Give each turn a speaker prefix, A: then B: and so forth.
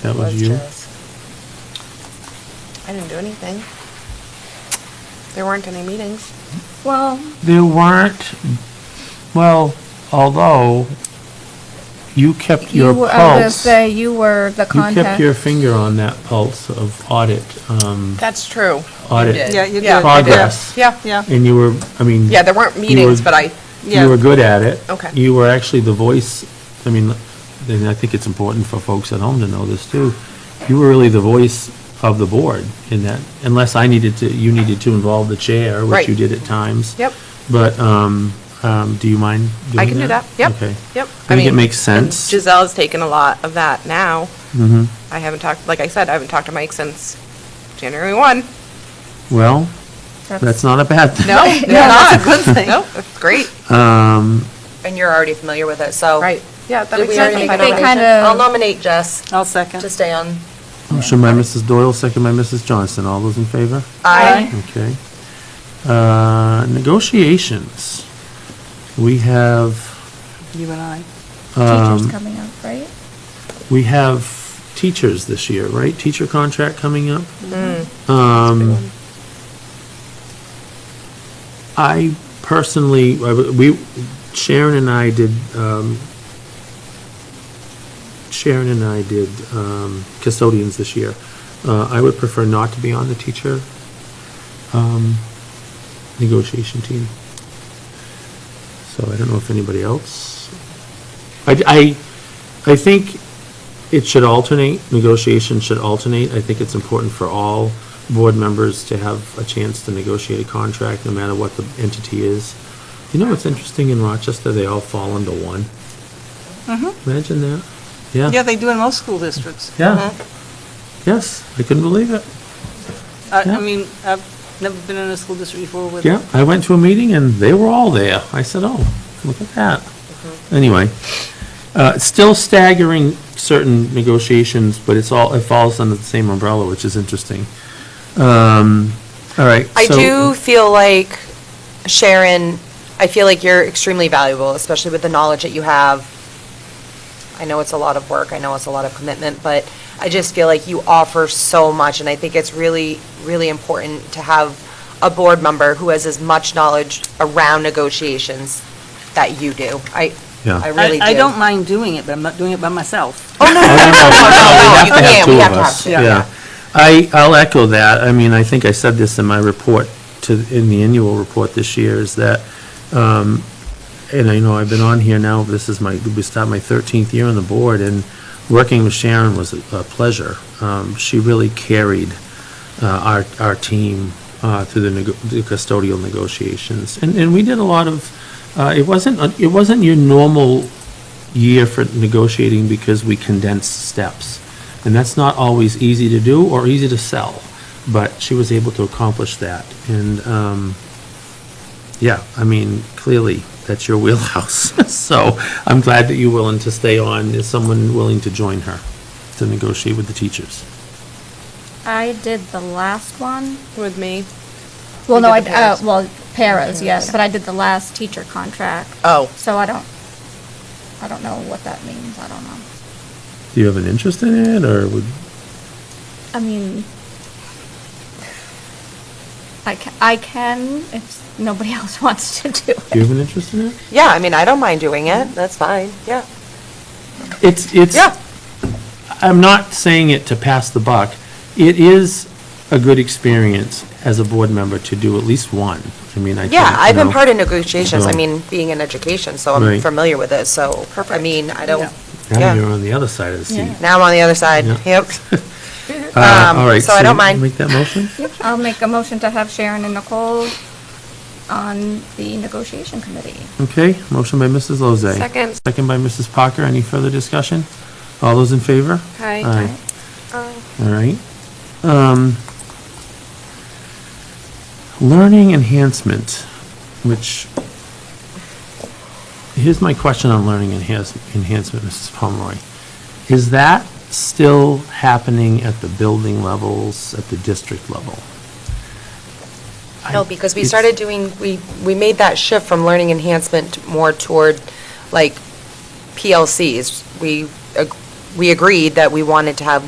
A: That was you.
B: Jazz. I didn't do anything. There weren't any meetings.
C: Well,
A: There weren't, well, although you kept
C: you
A: your
C: were, I was gonna
A: pulse.
C: say, you were the
A: You kept
C: contact.
A: your finger on that pulse of audit, um,
B: That's true.
A: Audit.
B: did.
D: Yeah, you
B: Yeah, I
D: did.
B: did.
A: Progress.
B: Yeah.
D: Yeah,
A: and you were, I mean.
B: Yeah, there weren't
A: you were-
B: meetings, but I,
D: yeah.
A: You were good at it.
B: Okay.
A: You were actually the voice, I mean, and I think it's important for folks at home to know this too. You were really the voice of the board in that, unless I needed to, you needed to involve the chair, which
B: Right.
A: you did at times.
B: yep,
A: But, um, um, do you mind doing that?
B: I can do that. Yep,
A: Okay.
B: yep.
A: I think it
B: mean,
A: makes
B: and
A: sense.
B: Giselle's taken a lot of that now.
A: Mhm.
B: I haven't talked, like I said, I haven't talked to Mike since January 1.
A: Well, that's not a bad thing.
B: No, it's not.
D: That's a good thing.
B: No, it's great.
A: Um,
E: And you're already familiar with it, so.
B: Right. Yeah, that
E: Did
B: makes
E: we already
B: sense.
E: make
B: I
E: a
B: don't
C: They
B: know.
C: kind
E: nomination?
C: of-
E: I'll nominate Jess
D: I'll
E: to
D: second.
E: stay on.
A: motion by Mrs. Doyle, second by Mrs. Johnson. All those in favor?
C: Aye.
A: Okay. Uh, negotiations. We have,
D: You and I.
A: Um,
C: Teachers coming up, right?
A: we have teachers this year, right? Teacher contract coming up. Um, I personally, I w- we, Sharon and I did, um, Sharon and I did, um, custodians this year. Uh, I would prefer not to be on the teacher, um, negotiation team. So I don't know if anybody else. I, I, I think it should alternate, negotiation should alternate. I think it's important for all board members to have a chance to negotiate a contract, no matter what the entity is. You know what's interesting in Rochester, they all fall into one. Imagine that, yeah.
D: Yeah, they do in most school districts. Uh-huh.
A: Yeah. Yes, I couldn't believe it.
D: I,
A: Yeah.
D: I mean, I've never been in a school district before with.
A: Yeah, I went to a meeting and they were all there. I said, oh, look at that. Anyway, uh, it's still staggering certain negotiations, but it's all, it falls under the same umbrella, which is interesting. Um, all right.
E: I
A: so-
E: do feel like, Sharon, I feel like you're extremely valuable, especially with the knowledge that you have. I know it's a lot of work, I know it's a lot of commitment, but I just feel like you offer so much, and I think it's really, really important to have a board member who has as much knowledge around negotiations that you do. I,
A: Yeah.
E: I
D: I,
E: really do.
D: I don't mind doing it, but I'm not doing it by myself.
E: Oh, no, no,
A: No, no, no,
E: no,
A: we
E: you can't, we have to have two.
D: yeah.
A: Yeah. I, I'll echo that. I mean, I think I said this in my report to, in the annual report this year, is that, um, and I know I've been on here now, this is my, we start my thirteenth year on the board, and working with Sharon was a a pleasure. Um, she really carried, uh, our, our team, uh, through the nego- the custodial negotiations. And, and we did a lot of, uh, it wasn't, a- it wasn't your normal year for negotiating because we condensed steps. And that's not always easy to do or easy to sell, but she was able to accomplish that. And, um, yeah, I mean, clearly, that's your wheelhouse. So I'm glad that you're willing to stay on. Is someone willing to join her to negotiate with the teachers?
C: I did the last one.
B: With me.
C: Well,
B: You
C: no, I,
B: did the
C: uh,
B: paras.
C: well, paras, yes, but I did the last teacher contract.
B: Oh.
C: So I don't, I don't know what that means. I don't know.
A: Do you have an interest in it, or would,
C: I mean, I can, I can if nobody else wants to do
A: do you
C: it.
A: have an interest in it?
E: Yeah, I mean, I don't mind doing it, that's fine, yeah.
A: It's, it's.
E: Yeah.
A: I'm not saying it to pass the buck. It is a good experience as a board member to do at least one. I mean, I.
E: Yeah,
A: think, you
E: I've been
A: know,
E: part of negotiations, I
A: so-
E: mean, being in education, so
A: Right.
E: I'm familiar with it, so, I mean, I don't,
A: Now
E: yeah.
A: you're on the other side of the seat.
E: now I'm on the other side,
A: Yeah.
E: yep.
A: Uh,
E: Um,
A: all right,
E: so I don't mind.
A: Make that motion?
C: I'll make a motion to have Sharon and Nicole on the negotiation committee.
A: Okay, motion by Mrs. Lozay.
B: Second.
A: Second by Mrs. Parker. Any further discussion? All those in favor?
B: Aye.
A: All right. Um, Learning enhancement, which, here's my question on learning enhance- enhancement, Mrs. Pomeroy. Is that still happening at the building levels, at the district level? I-
E: No, because we
A: it's-
E: started doing, we, we made that shift from learning enhancement more toward, like, PLCs. We, ag- we agreed that we wanted to have